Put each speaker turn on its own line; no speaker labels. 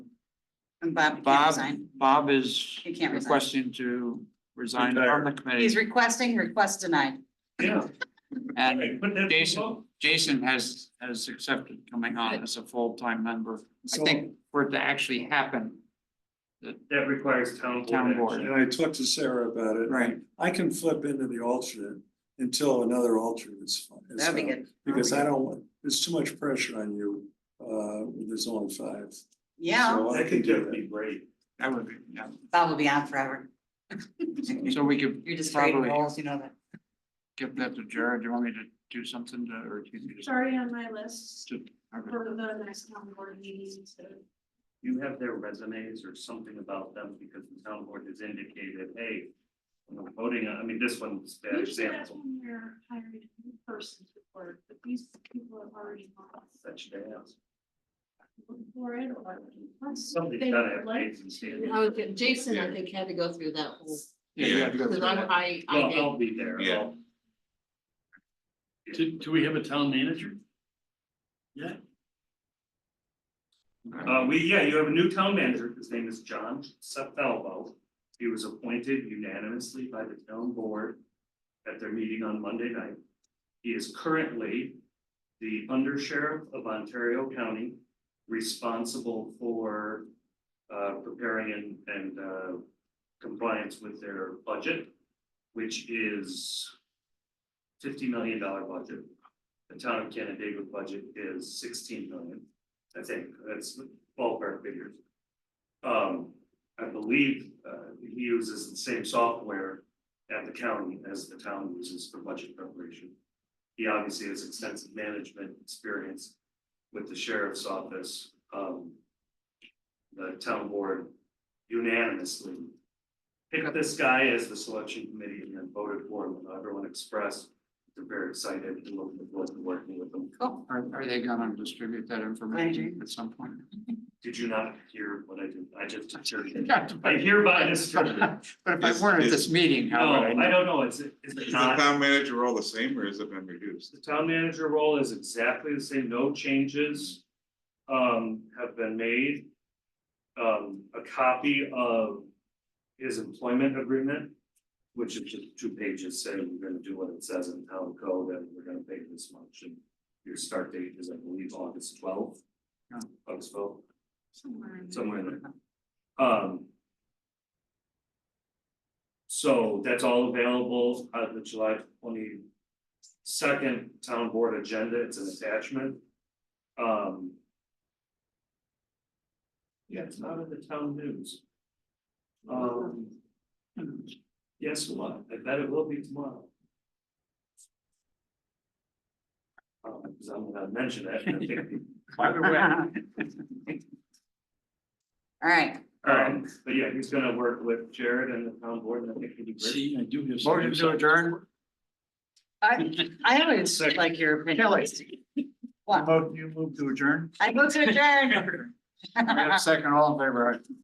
And Bob can't
Bob,
resign.
Bob is
He can't resign.
requesting to resign from
Retire.
the committee.
He's requesting, request denied.
Yeah.
And
Hey, put that to
Jason.
vote.
Jason has, has accepted coming on as a full-time member. I think for it to actually happen,
That requires town
Town
board
board.
action.
And I talked to Sarah about it.
Right.
I can flip into the alternate until another alternate is. fi- is
That'd be
found,
good.
Because I don't, want there's too much pressure on you, uh, when there's only five.
Yeah,
So I
That
can
could
do
be great.
I would, yeah.
Bob will be on forever.
So we could
You're just creating
probably
roles, you know that.
give that to Jared. Do you want me to do something to, or do you think
It's
just?
already
uh,
on my list
to- okay.
for the next town board meeting, so.
You have their resumes or something about them because the town board has indicated, hey, when we're voting, on- I mean, this one's a bad
Usually that's
example.
when you're hiring a new person to work, but these people have already lost.
Such as,
For it or. unless
Somebody's
they
gotta
would
have
like
reasons
to.
here.
I was, gonna- Jason, I think, had to go through that whole,
Yeah, you have to go
because
through
I'm,
that.
I, I
well,
did.
I'll be there.
Yeah.
I'll-
Do, do we have a town manager?
Uh, we, yeah, you have a new town manager, his name is John Sepfalvo. He was appointed unanimously by the town board at their meeting on Monday night. He is currently the undersheriff of Ontario County, responsible for uh, preparing and, and uh, compliance with their budget, which is fifty million dollar budget. The town of Canandaigua budget is sixteen million, I think, that's ballpark figures. Um, I believe, uh, he uses the same software at the county as the town uses for budget preparation. He obviously has extensive management experience with the sheriff's office, um. The town board unanimously picked this guy as the selection committee and then voted for him, and everyone expressed. They're very excited and looking forward to working with him.
Cool.
Are, are they gonna distribute that information
Later.
at some point?
Did you not hear what I did? I just. I
But
hereby
if I
distribute.
weren't at this meeting,
No,
how would I know?
I don't know, is it, is it
Is the
not?
town manager role the same or has it been reduced?
The town manager role is exactly the same, no changes um have been made. Um, a copy of his employment agreement, which is just two pages saying we're gonna do what it says in town code and we're gonna pay this much and your start date is, I believe, August twelfth.
Yeah.
August twelfth.
Somewhere in there.
somewhere in there. Um. So that's all available on the July twenty second town board agenda, it's an attachment. Um. Yeah, it's not in the town news. Um. Yes, what, I bet it will be tomorrow. Um, because I'm gonna mention that, and I think people
By the way,
All right,
Um, but yeah, he's gonna work with Jared and the town board, and I think he'd be great.
See, I do have.
Motion to adjourn?
I, I always like your opinion. What?
Vote, you move to adjourn?
I vote to adjourn.
We have a second, all in favor, aye?